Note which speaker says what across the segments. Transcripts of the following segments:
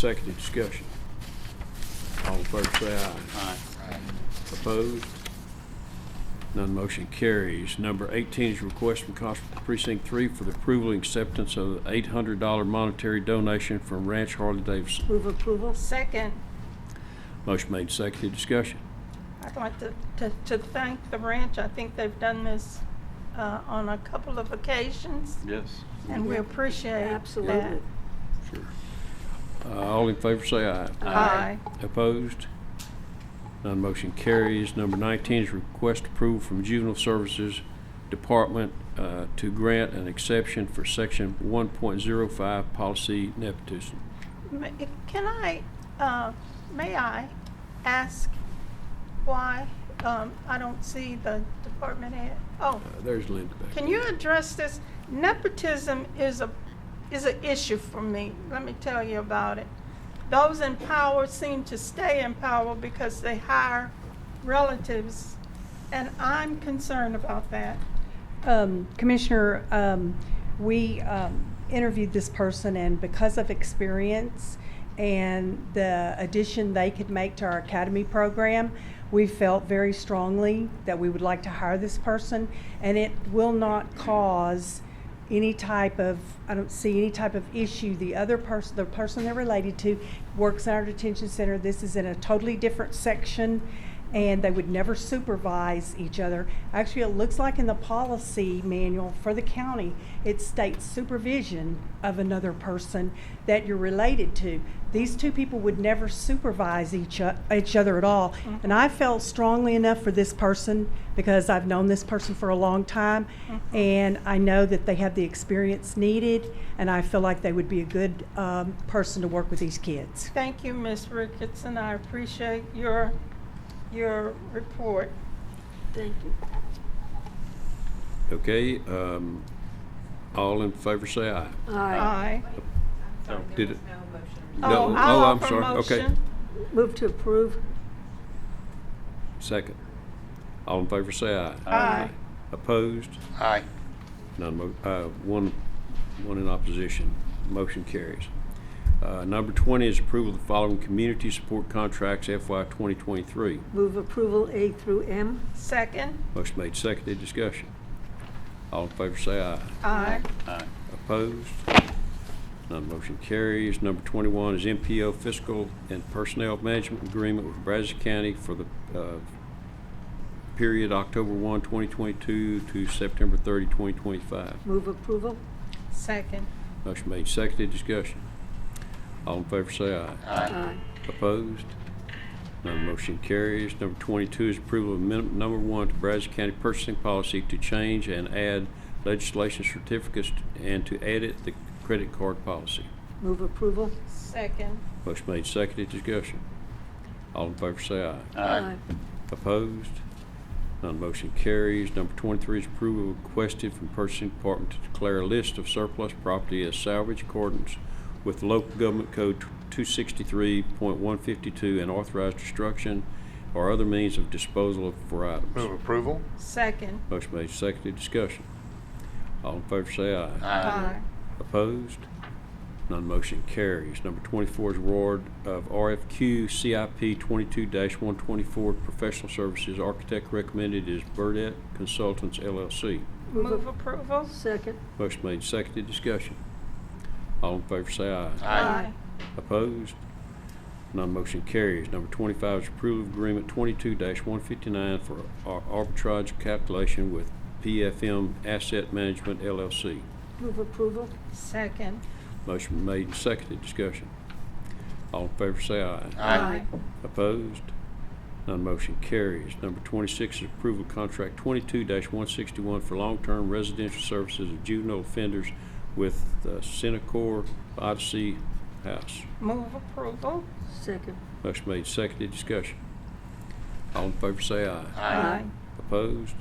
Speaker 1: Seconded discussion. All in favor say aye.
Speaker 2: Aye.
Speaker 1: Opposed? None motion carries. Number 18 is a request from Constable Precinct 3 for the approval and acceptance of the $800 monetary donation from Ranch Harley Davidson.
Speaker 3: Move approval.
Speaker 4: Second,
Speaker 1: Motion made, seconded discussion.
Speaker 4: I'd like to, to, to thank the ranch. I think they've done this, uh, on a couple of occasions,
Speaker 2: Yes.
Speaker 4: and we appreciate that.
Speaker 3: Absolutely.
Speaker 1: Uh, All in favor say aye.
Speaker 4: Aye.
Speaker 1: Opposed? None motion carries. Number 19 is request approval from Juvenile Services Department uh, to grant an exception for Section 1.05 Policy Nepotism.
Speaker 4: Ma- Can I, uh, may I ask why, um, I don't see the department head? Oh,
Speaker 1: Uh, There's Linda back.
Speaker 4: can you address this? Nepotism is a, is an issue for me. Let me tell you about it. Those in power seem to stay in power because they hire relatives, and I'm concerned about that.
Speaker 5: Um, Commissioner, um, we um, interviewed this person, and because of experience and the addition they could make to our academy program, we felt very strongly that we would like to hire this person, and it will not cause any type of, I don't see any type of issue. The other person, the person they're related to works in our detention center. This is in a totally different section and they would never supervise each other. Actually, it looks like in the policy manual for the county, it states supervision of another person that you're related to. These two people would never supervise each, o- each other at all.
Speaker 3: Mm-hmm.
Speaker 5: And I felt strongly enough for this person because I've known this person for a long time
Speaker 3: Mm-hmm.
Speaker 5: and I know that they have the experience needed and I feel like they would be a good um, person to work with these kids.
Speaker 4: Thank you, Ms. Ricketson. I appreciate your, your report.
Speaker 3: Thank you.
Speaker 1: Okay, um, all in favor say aye.
Speaker 3: Aye.
Speaker 4: Aye.
Speaker 2: No.
Speaker 1: Did it?
Speaker 4: Oh,
Speaker 1: No,
Speaker 4: I'll
Speaker 1: oh, I'm
Speaker 4: offer
Speaker 1: sorry. Okay.
Speaker 4: motion.
Speaker 3: Move to approve.
Speaker 1: Second. All in favor say aye.
Speaker 4: Aye.
Speaker 1: Opposed?
Speaker 2: Aye.
Speaker 1: None, mo- uh, one, one in opposition. Motion carries. Uh, Number 20 is approval of the following community support contracts FY 2023.
Speaker 3: Move approval A through M.
Speaker 4: Second.
Speaker 1: Motion made, seconded, discussion. All in favor say aye.
Speaker 4: Aye.
Speaker 2: Aye.
Speaker 1: Opposed? None motion carries. Number 21 is MPO Fiscal and Personnel Management Agreement with Brazos County for the uh, period October 1, 2022 to September 30, 2025.
Speaker 3: Move approval.
Speaker 4: Second.
Speaker 1: Motion made, seconded, discussion. All in favor say aye.
Speaker 3: Aye.
Speaker 1: Opposed? None motion carries. Number 22 is approval of amendment number one to Brazos County purchasing policy to change and add legislation certificates and to edit the credit card policy.
Speaker 3: Move approval.
Speaker 4: Second.
Speaker 1: Motion made, seconded, discussion. All in favor say aye.
Speaker 2: Aye.
Speaker 1: Opposed? None motion carries. Number 23 is approval requested from Purchasing Department to declare a list of surplus property as salvage accordance with local government code 263.152 and authorize destruction or other means of disposal of for
Speaker 6: Move
Speaker 1: items.
Speaker 6: approval?
Speaker 4: Second.
Speaker 1: Motion made, seconded, discussion. All in favor say aye.
Speaker 4: Aye.
Speaker 1: Opposed? None motion carries. Number 24 is award of RFQ CIP 22-124 Professional Services Architect recommended is Burdette Consultants LLC.
Speaker 4: Move approval?
Speaker 3: Second.
Speaker 1: Motion made, seconded, discussion. All in favor say aye.
Speaker 2: Aye.
Speaker 1: Opposed? None motion carries. Number 25 is approval of agreement 22-159 for ar- arbitrage calculation with PFM Asset Management LLC.
Speaker 3: Move approval.
Speaker 4: Second.
Speaker 1: Motion made and seconded, discussion. All in favor say aye.
Speaker 2: Aye.
Speaker 1: Opposed? None motion carries. Number 26 is approval of contract 22-161 for long-term residential services of juvenile offenders with uh, Centacor Odyssey House.
Speaker 4: Move approval?
Speaker 3: Second.
Speaker 1: Motion made, seconded, discussion. All in favor say aye.
Speaker 3: Aye.
Speaker 1: Opposed?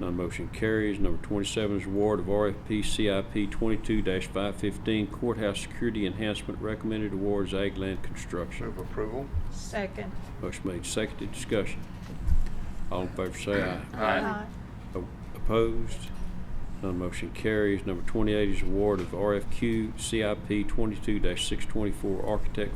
Speaker 1: None motion carries. Number 27 is award of RFP CIP 22-515 courthouse security enhancement recommended awards ag land construction.
Speaker 6: Move approval?
Speaker 4: Second.
Speaker 1: Motion made, seconded, discussion. All in favor say aye.
Speaker 2: Aye.
Speaker 1: O- Opposed? None motion carries. Number 28 is award of RFQ CIP 22-624 Architect